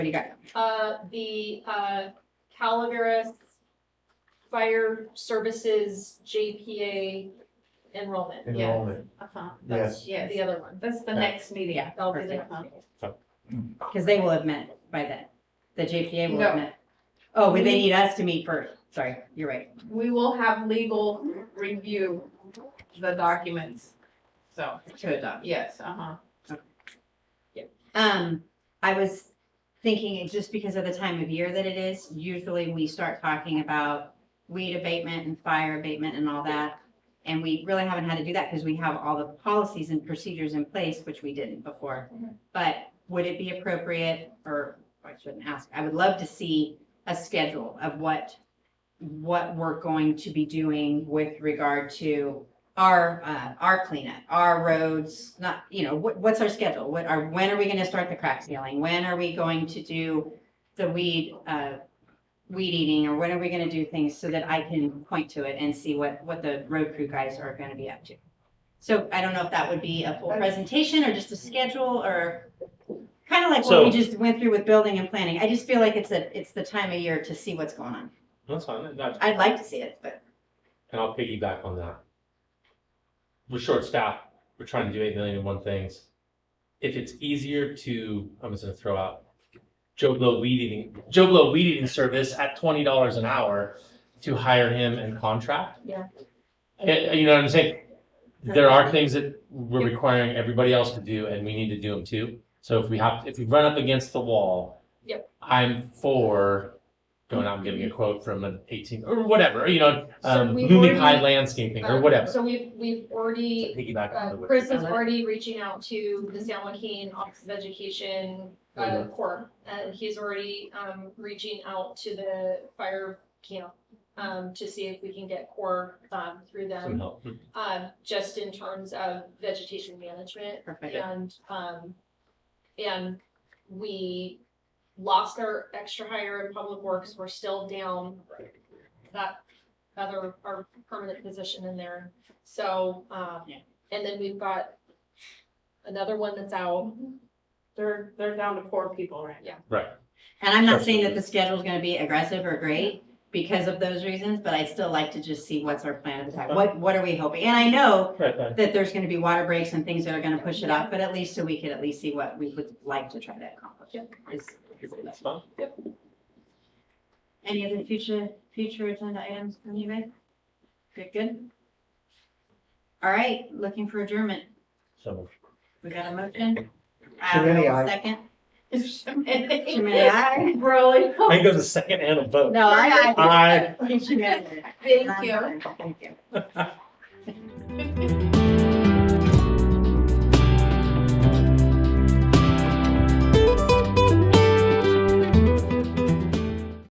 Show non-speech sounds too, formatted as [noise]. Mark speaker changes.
Speaker 1: do you got?
Speaker 2: Uh, the, uh, Calaveras Fire Services JPA enrollment, yeah.
Speaker 3: enrollment.
Speaker 4: Uh-huh,
Speaker 3: Yes,
Speaker 4: yes,
Speaker 2: The other one,
Speaker 4: that's the next meeting.
Speaker 1: Yeah,
Speaker 2: that'll be the
Speaker 1: perfect.
Speaker 4: Uh-huh.
Speaker 1: Because they will have met by then. The JPA will have
Speaker 4: No.
Speaker 1: met. Oh, but they need us to meet first. Sorry, you're right.
Speaker 4: We will have legal review the documents, so,
Speaker 1: Should have done.
Speaker 4: yes, uh-huh.
Speaker 1: Um, I was thinking, it- just because of the time of year that it is, usually we start talking about weed abatement and fire abatement and all that. And we really haven't had to do that because we have all the policies and procedures in place, which we didn't before.
Speaker 2: Mhm.
Speaker 1: But would it be appropriate, or I shouldn't ask, I would love to see a schedule of what, what we're going to be doing with regard to our, uh, our cleanup, our roads, not, you know, what, what's our schedule? What are, when are we gonna start the crack sealing? When are we going to do the weed, uh, weed eating, or when are we gonna do things so that I can point to it and see what, what the road crew guys are gonna be up to? So I don't know if that would be a full presentation or just a schedule or kind of like what we
Speaker 5: So-
Speaker 1: just went through with building and planning. I just feel like it's a, it's the time of year to see what's going on.
Speaker 5: That's fine. That,
Speaker 1: I'd like to see it, but
Speaker 5: and I'll piggyback on that. We're short staffed. We're trying to do eight million and one things. If it's easier to, I'm just gonna throw out Joe Blow weed eating, Joe Blow weed eating service at twenty dollars an hour to hire him and contract.
Speaker 2: Yeah.
Speaker 5: Eh, you know what I'm saying? There are things that we're requiring everybody else to do and we need to do them too. So if we have, if we run up against the wall.
Speaker 2: Yep.
Speaker 5: I'm for going out and getting a quote from an eighteen or whatever, you know,
Speaker 2: So
Speaker 5: um,
Speaker 2: we've
Speaker 5: Lumen High
Speaker 2: already-
Speaker 5: landscaping or
Speaker 2: Uh,
Speaker 5: whatever.
Speaker 2: So we've, we've already,
Speaker 5: Piggyback
Speaker 2: uh,
Speaker 5: on the.
Speaker 2: Chris is already reaching out to the San Joaquin Office of Education,
Speaker 5: Mm-hmm.
Speaker 2: uh, Corps. And he's already, um, reaching out to the fire camp, um, to see if we can get Corps, um, through
Speaker 5: Some
Speaker 2: them.
Speaker 5: help.
Speaker 2: Um, just in terms of vegetation management
Speaker 1: perfect.
Speaker 2: And, um, and we lost our extra hire in public works, we're still down that other, our permanent position in there, so, um,
Speaker 1: Yeah.
Speaker 2: and then we've got another one that's out,
Speaker 4: They're, they're down to four people right
Speaker 2: Yeah.
Speaker 4: now.
Speaker 1: And I'm not saying that the schedule's gonna be aggressive or great because of those reasons, but I still like to just see what's our plan of attack. What, what are we hoping? And I know
Speaker 5: Right, right.
Speaker 1: that there's gonna be water breaks and things that are gonna push it up, but at least so we could at least see what we would like to try to accomplish. Is-
Speaker 5: That's fine.
Speaker 1: Any other future, future agenda items from you guys? Good, good. All right, looking for adjournment.
Speaker 5: So.
Speaker 1: We got a motion?
Speaker 3: Shamini,
Speaker 1: I'll
Speaker 3: aye.
Speaker 1: Second. [laughs]
Speaker 4: [laughs]
Speaker 1: Shamini,
Speaker 4: Thank
Speaker 1: aye.
Speaker 4: Really?
Speaker 5: I think there's a second and a vote.
Speaker 1: No, I.
Speaker 5: I.
Speaker 1: Shamini.
Speaker 4: Thank you.
Speaker 1: Thank you.